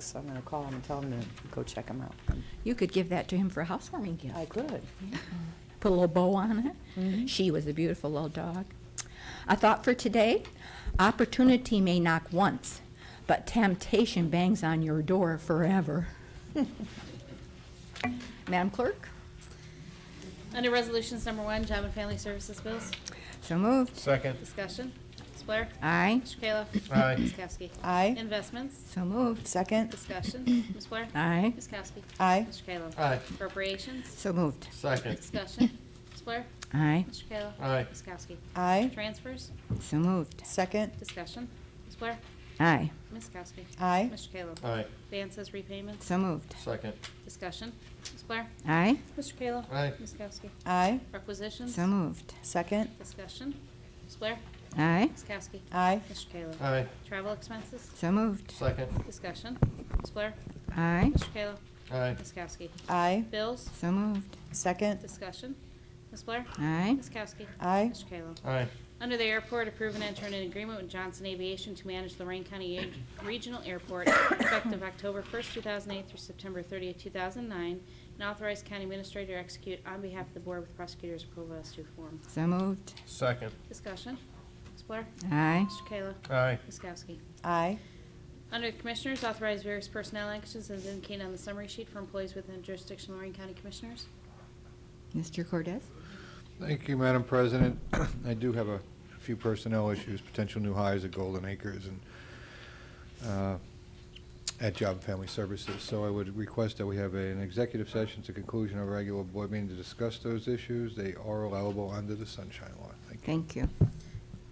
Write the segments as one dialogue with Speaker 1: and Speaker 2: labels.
Speaker 1: So I'm gonna call him and tell him to go check him out.
Speaker 2: You could give that to him for a housewarming
Speaker 1: I
Speaker 2: gift.
Speaker 1: could.
Speaker 2: Put a little bow on it.
Speaker 1: Mhm.
Speaker 2: She was a beautiful little dog. A thought for today opportunity may knock once, but temptation bangs on your door forever. Madam Clerk?
Speaker 3: Under Resolutions Number One, Job and Family Services Bills,
Speaker 2: So moved.
Speaker 4: Second,
Speaker 3: discussion. Ms. Blair?
Speaker 2: Aye.
Speaker 3: Mr. Kayla?
Speaker 4: Aye.
Speaker 3: Ms. Kowski?
Speaker 1: Aye.
Speaker 3: Investments,
Speaker 2: So moved.
Speaker 1: Second.
Speaker 3: discussion. Ms. Blair?
Speaker 2: Aye.
Speaker 3: Ms. Kowski?
Speaker 1: Aye.
Speaker 3: Mr. Kayla?
Speaker 4: Aye.
Speaker 3: Appropriations,
Speaker 2: So moved.
Speaker 4: second,
Speaker 3: discussion. Ms. Blair?
Speaker 2: Aye.
Speaker 3: Mr. Kayla?
Speaker 4: Aye.
Speaker 3: Ms. Kowski?
Speaker 1: Aye.
Speaker 3: Transfers,
Speaker 2: So moved.
Speaker 1: Second.
Speaker 3: discussion. Ms. Blair?
Speaker 2: Aye.
Speaker 3: Ms. Kowski?
Speaker 1: Aye.
Speaker 3: Mr. Kayla?
Speaker 4: aye,
Speaker 3: Advances, repayments,
Speaker 2: So moved.
Speaker 4: second,
Speaker 3: discussion. Ms. Blair?
Speaker 2: Aye.
Speaker 3: Mr. Kayla?
Speaker 4: Aye.
Speaker 3: Ms. Kowski?
Speaker 1: Aye.
Speaker 3: Requisitions,
Speaker 2: So moved.
Speaker 1: Second.
Speaker 3: discussion. Ms. Blair?
Speaker 2: Aye.
Speaker 3: Ms. Kowski?
Speaker 1: Aye.
Speaker 3: Mr. Kayla?
Speaker 4: aye,
Speaker 3: Travel expenses,
Speaker 2: So moved.
Speaker 4: second,
Speaker 3: discussion. Ms. Blair?
Speaker 2: Aye.
Speaker 3: Mr. Kayla?
Speaker 4: aye,
Speaker 3: Ms. Kowski?
Speaker 1: Aye.
Speaker 3: Bills?
Speaker 2: So moved.
Speaker 1: Second.
Speaker 3: Discussion. Ms. Blair?
Speaker 2: Aye.
Speaker 3: Ms. Kowski?
Speaker 1: Aye.
Speaker 3: Mr. Kayla?
Speaker 4: aye,
Speaker 3: Under the airport, approve and enter an agreement with Johnson Aviation to manage Lorraine County A- Regional Airport effective October 1st, 2008 through September 30th, 2009, and authorize county administrator to execute on behalf of the board with prosecutor's approval as to form.
Speaker 2: So moved.
Speaker 4: second,
Speaker 3: Discussion. Ms. Blair?
Speaker 2: Aye.
Speaker 3: Mr. Kayla?
Speaker 4: aye,
Speaker 3: Ms. Kowski?
Speaker 1: Aye.
Speaker 3: Under the Commissioners, authorize various personnel actions as indicated on the summary sheet for employees within jurisdiction of Lorraine County Commissioners.
Speaker 2: Mr. Cortez?
Speaker 5: Thank you, Madam President. I do have a few personnel issues, potential new hires at Golden Acres and uh, at Job and Family Services. So I would request that we have an executive session to conclusion of our regular board meeting to discuss those issues. They are allowable under the Sunshine Law. Thank you.
Speaker 2: Thank you.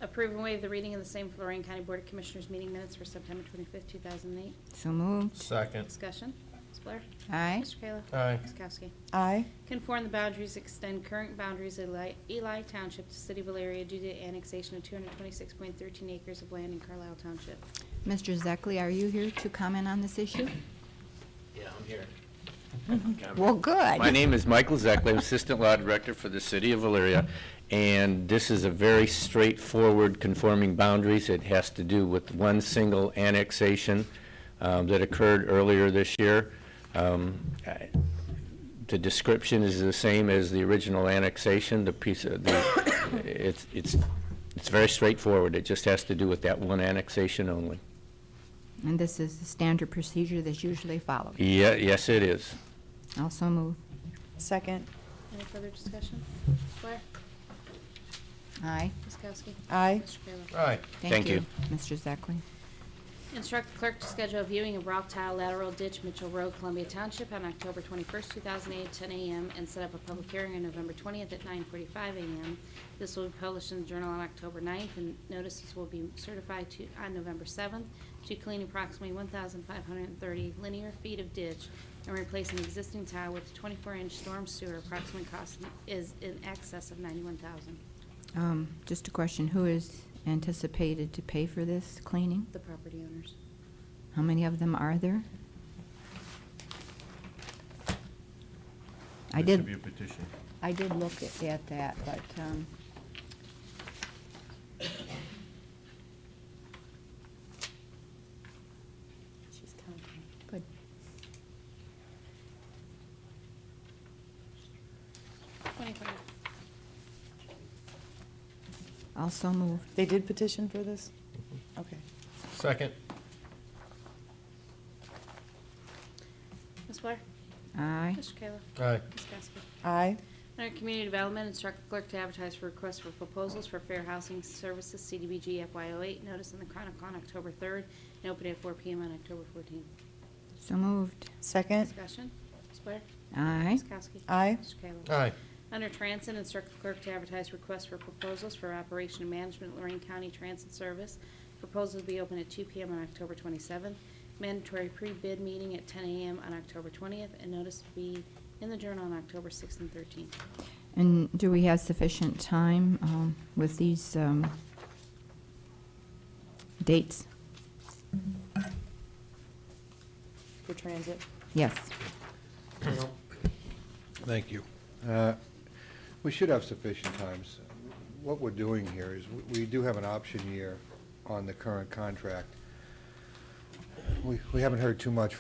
Speaker 3: Approve and waive the reading of the same for Lorraine County Board of Commissioners meeting minutes for September 25th, 2008.
Speaker 2: So moved.
Speaker 4: second,
Speaker 3: Discussion. Ms. Blair?
Speaker 2: Aye.
Speaker 3: Mr. Kayla?
Speaker 4: aye,
Speaker 3: Ms. Kowski?
Speaker 1: Aye.
Speaker 3: Conform the boundaries, extend current boundaries of Eli- Eli Township to City of Elaria due to annexation of 226.13 acres of land in Carlisle Township.
Speaker 2: Mr. Zekley, are you here to comment on this issue?
Speaker 6: Yeah, I'm here.
Speaker 2: Well, good.
Speaker 6: My name is Michael Zekley, I'm Assistant Law Director for the City of Valeria, and this is a very straightforward conforming boundaries. It has to do with one single annexation um, that occurred earlier this year. Um, I- The description is the same as the original annexation, the piece of, the it's, it's, it's very straightforward. It just has to do with that one annexation only.
Speaker 2: And this is the standard procedure that's usually followed.
Speaker 6: Yeah, yes, it is.
Speaker 2: Also move.
Speaker 1: Second.
Speaker 3: Any further discussion? Ms. Blair?
Speaker 2: Aye.
Speaker 3: Ms. Kowski?
Speaker 1: Aye.
Speaker 3: Mr. Kayla?
Speaker 4: aye,
Speaker 6: Thank you.
Speaker 2: Mr. Zekley.
Speaker 3: Instruct the clerk to schedule a viewing of rock tile lateral ditch Mitchell Road, Columbia Township on October 21st, 2008, at 10 a.m. and set up a public hearing on November 20th at 9:45 a.m. This will be published in the Journal on October 9th and notices will be certified to, on November 7th to clean approximately 1,530 linear feet of ditch and replace an existing tile with 24-inch storm sewer. Approximate cost is in excess of 91,000.
Speaker 2: Um, Just a question, who is anticipated to pay for this cleaning?
Speaker 3: The property owners.
Speaker 2: How many of them are there? I
Speaker 4: There should be
Speaker 2: did,
Speaker 4: a petition.
Speaker 2: I did look at- at that, but, um,
Speaker 3: She's counting.
Speaker 2: good.
Speaker 3: Twenty-five.
Speaker 2: Also move.
Speaker 1: They did petition for this? Okay.
Speaker 4: Second,
Speaker 3: Ms. Blair?
Speaker 2: Aye.
Speaker 3: Mr. Kayla?
Speaker 4: aye,
Speaker 3: Ms. Kowski?
Speaker 1: Aye.
Speaker 3: Under Community Development, instruct the clerk to advertise for requests for proposals for Fair Housing Services CDBG FY08, notice in the Chronicle on October 3rd, and open at 4 PM on October 14th.
Speaker 2: So moved.
Speaker 1: Second.
Speaker 3: Discussion, Ms. Blair?
Speaker 2: Aye.
Speaker 3: Ms. Kowski?
Speaker 1: Aye.
Speaker 3: Mr. Kayla?
Speaker 4: aye,
Speaker 3: Under Transit, instruct the clerk to advertise requests for proposals for operation and management of Lorraine County Transit Service. Proposals will be open at 2 PM on October 27th, mandatory pre-bid meeting at 10 AM on October 20th, and notice to be in the Journal on October 6th and 13th.
Speaker 2: And do we have sufficient time um, with these um, dates?
Speaker 1: For transit.
Speaker 2: Yes.
Speaker 5: Thank you. Uh, We should have sufficient times. What we're doing here is, we- we do have an option year on the current contract. We we haven't heard too much